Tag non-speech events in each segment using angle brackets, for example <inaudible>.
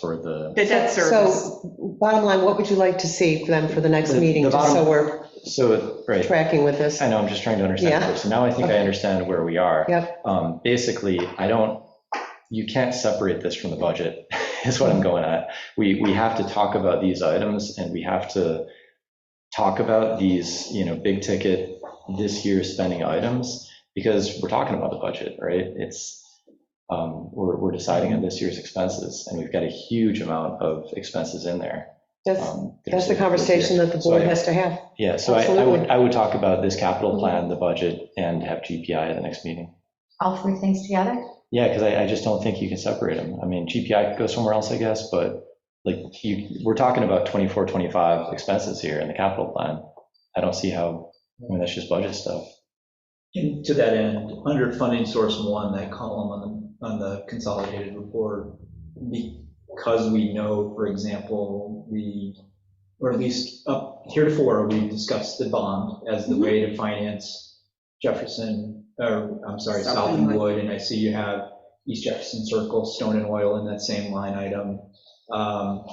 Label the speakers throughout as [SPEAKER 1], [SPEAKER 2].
[SPEAKER 1] for the,
[SPEAKER 2] The debt service.
[SPEAKER 3] So bottom line, what would you like to see then for the next
[SPEAKER 1] The-
[SPEAKER 3] meeting,
[SPEAKER 1] the
[SPEAKER 3] just so
[SPEAKER 1] bottom-
[SPEAKER 3] we're
[SPEAKER 1] so, right,
[SPEAKER 3] tracking with this?
[SPEAKER 1] I know, I'm just trying to understand.
[SPEAKER 3] Yeah.
[SPEAKER 1] first. So now I think I
[SPEAKER 3] Okay.
[SPEAKER 1] understand where we are.
[SPEAKER 3] Yep.
[SPEAKER 1] Um, Basically, I don't, you can't separate this from the budget, <laughs> is what I'm going at. We, we have to talk about these items and we have to talk about these, you know, big ticket, this year spending items, because we're talking about the budget, right? It's, um, we're, we're deciding on this year's expenses and we've got a huge amount of expenses in there.
[SPEAKER 3] That's,
[SPEAKER 1] um, that are saved
[SPEAKER 3] that's the
[SPEAKER 1] for this
[SPEAKER 3] conversation
[SPEAKER 1] year.
[SPEAKER 3] that the
[SPEAKER 1] So
[SPEAKER 3] board
[SPEAKER 1] I-
[SPEAKER 3] has to have.
[SPEAKER 1] yeah, so I- I
[SPEAKER 3] Absolutely.
[SPEAKER 1] would, I would talk about this capital plan, the budget, and have GPI at the next meeting.
[SPEAKER 4] all three things together?
[SPEAKER 1] Yeah, because I, I just don't think you can separate them. I mean, GPI could go somewhere else, I guess, but like, you, we're talking about 24, 25 expenses here in the capital plan. I don't see how, I mean, that's just budget stuff.
[SPEAKER 5] And to that end, under funding source one, that column on the, on the consolidated report, because we know, for example, the, or at least up heretofore, we've discussed the bond as the way to finance Jefferson, or I'm sorry, South and Wood, and I see you have East Jefferson Circle, Stone and Oil in that same line item. Um,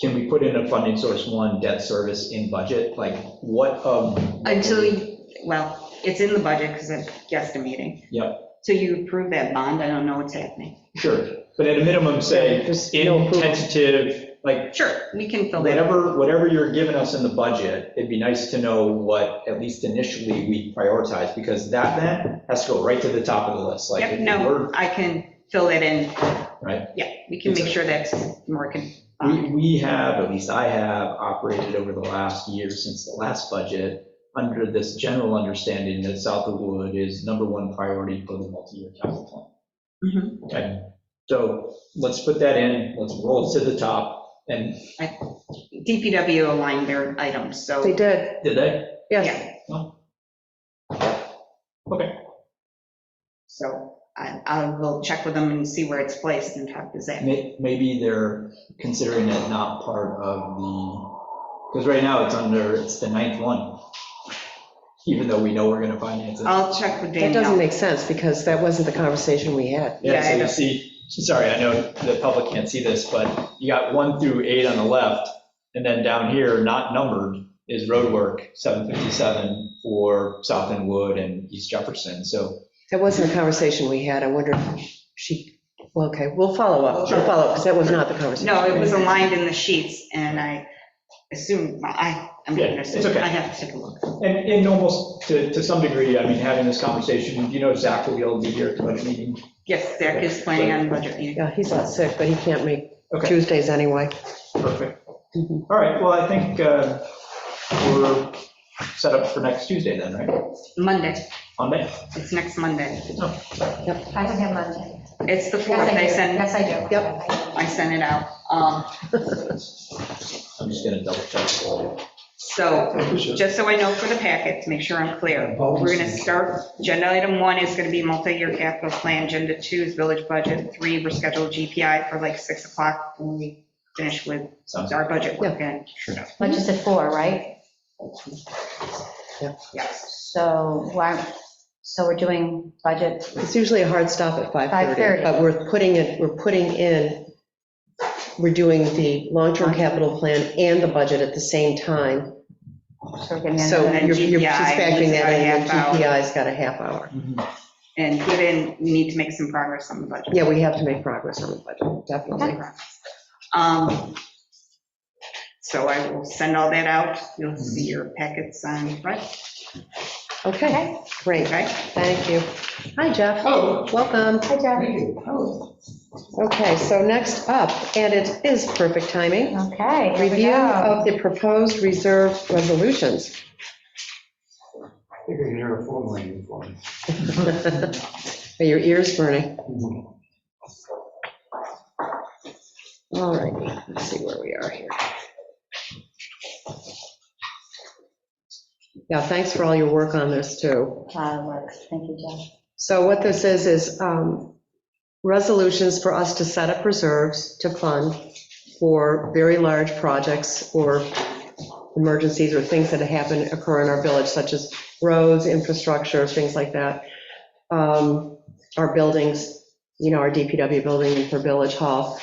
[SPEAKER 5] Can we put in a funding source one debt service in budget? Like, what of?
[SPEAKER 2] Until, you well, it's in the budget because I'm guesstimating.
[SPEAKER 5] Yep.
[SPEAKER 2] So you approve that bond, I don't know what's happening.
[SPEAKER 5] Sure, but at a minimum, say,
[SPEAKER 3] There's no
[SPEAKER 5] in
[SPEAKER 3] approval.
[SPEAKER 5] tentative, like,
[SPEAKER 2] Sure, we can fill that.
[SPEAKER 5] whatever, whatever you're giving us in the budget, it'd be nice to know what, at least initially, we prioritize, because that then has to go right to the top of the list, like,
[SPEAKER 2] Yep,
[SPEAKER 5] if
[SPEAKER 2] no,
[SPEAKER 5] we're,
[SPEAKER 2] I can fill that in.
[SPEAKER 5] Right.
[SPEAKER 2] Yeah, we can make sure that's um, working.
[SPEAKER 5] we, we have, at least I have, operated over the last year since the last budget, under this general understanding that South of Wood is number one priority for the multi-year capital plan.
[SPEAKER 2] Mhm.
[SPEAKER 5] Okay, so let's put that in, let's roll it to the top, and
[SPEAKER 2] DPW aligned their items, so.
[SPEAKER 3] They did,
[SPEAKER 5] did they?
[SPEAKER 3] yes.
[SPEAKER 2] Yeah.
[SPEAKER 5] No. Oh. Okay.
[SPEAKER 2] So I, I will check with them and see where it's placed and talk to Zach.
[SPEAKER 5] May- Maybe they're considering it not part of the, because right now it's under, it's the ninth one, even though we know we're going to finance it.
[SPEAKER 2] I'll check with
[SPEAKER 3] That doesn't
[SPEAKER 2] Danielle.
[SPEAKER 3] make sense because that wasn't the conversation we had.
[SPEAKER 2] yeah,
[SPEAKER 5] Yeah,
[SPEAKER 2] I
[SPEAKER 5] so
[SPEAKER 2] know.
[SPEAKER 5] you see, sorry, I know the public can't see this, but you got one through eight on the left, and then down here, not numbered, is roadwork, 757 for South End Wood and East Jefferson. So
[SPEAKER 3] That wasn't the conversation we had. I wonder if she, well, okay, we'll follow up, we'll follow up because that was not the conversation.
[SPEAKER 2] No, it was aligned in the sheets and I assume, I, I'm
[SPEAKER 5] Yeah,
[SPEAKER 2] going to
[SPEAKER 5] it's
[SPEAKER 2] assume,
[SPEAKER 5] okay.
[SPEAKER 2] I have to take a look.
[SPEAKER 5] And, and almost to, to some degree, I mean, having this conversation, you know, Zach will be able to be here at the budget meeting.
[SPEAKER 2] Yes, Zach is planning on budget meeting.
[SPEAKER 3] Yeah, he's not sick, but he can't make
[SPEAKER 5] Okay,
[SPEAKER 3] Tuesdays anyway.
[SPEAKER 5] perfect.
[SPEAKER 3] Mhm.
[SPEAKER 5] All right, well, I think uh, we're set up for next Tuesday then, right?
[SPEAKER 2] Monday,
[SPEAKER 5] Monday?
[SPEAKER 2] it's next Monday.
[SPEAKER 4] I don't have Monday.
[SPEAKER 2] It's the fourth,
[SPEAKER 4] Yes, I
[SPEAKER 2] I
[SPEAKER 4] do.
[SPEAKER 2] send,
[SPEAKER 4] Yes, I do.
[SPEAKER 2] I send it out. Um,
[SPEAKER 5] I'm just gonna double check.
[SPEAKER 2] So, just so I know for the packet, to make sure I'm clear, we're gonna start, agenda item one is gonna be multi-year capital plan, agenda two is village budget, three, we're scheduled GPI for like six o'clock when we finish with
[SPEAKER 5] Sounds
[SPEAKER 2] our budget work and,
[SPEAKER 4] Which is at four, right?
[SPEAKER 2] yes.
[SPEAKER 4] So, why- so we're doing budget,
[SPEAKER 3] It's usually a hard stop at 5:30,
[SPEAKER 4] 5:30.
[SPEAKER 3] but we're putting it, we're putting in, we're doing the long-term capital plan and the budget at the same time.
[SPEAKER 4] so we're getting.
[SPEAKER 3] So
[SPEAKER 2] then
[SPEAKER 3] you're you're just
[SPEAKER 2] GPI
[SPEAKER 3] factoring
[SPEAKER 2] needs
[SPEAKER 3] that
[SPEAKER 2] about a
[SPEAKER 3] in, and
[SPEAKER 2] half hour.
[SPEAKER 3] GPI's got a half hour.
[SPEAKER 2] And given, we need to make some progress on the budget.
[SPEAKER 3] Yeah, we have to make progress on the budget, definitely.
[SPEAKER 2] Um, So I will send all that out, you'll see your packets on, Friday.
[SPEAKER 3] Okay, great,
[SPEAKER 2] okay?
[SPEAKER 3] thank you. Hi, Jeff.
[SPEAKER 5] Oh.
[SPEAKER 3] Welcome.
[SPEAKER 4] Hi, Jeff.
[SPEAKER 3] Okay, so next up, and it is perfect timing,
[SPEAKER 4] Okay. here we
[SPEAKER 3] review
[SPEAKER 4] go.
[SPEAKER 3] of the proposed reserve resolutions.
[SPEAKER 6] Figured you're a phone line for me.
[SPEAKER 3] Are your ears burning? All righty, let's see where we are here. Yeah, thanks for all your work on this, too.
[SPEAKER 4] Uh, works. Thank you, Jeff.
[SPEAKER 3] So what this is, is um, resolutions for us to set up reserves to fund for very large projects or emergencies or things that happen, occur in our village, such as roads, infrastructure, things like that. Um, Our buildings, you know, our DPW building for Village Hall.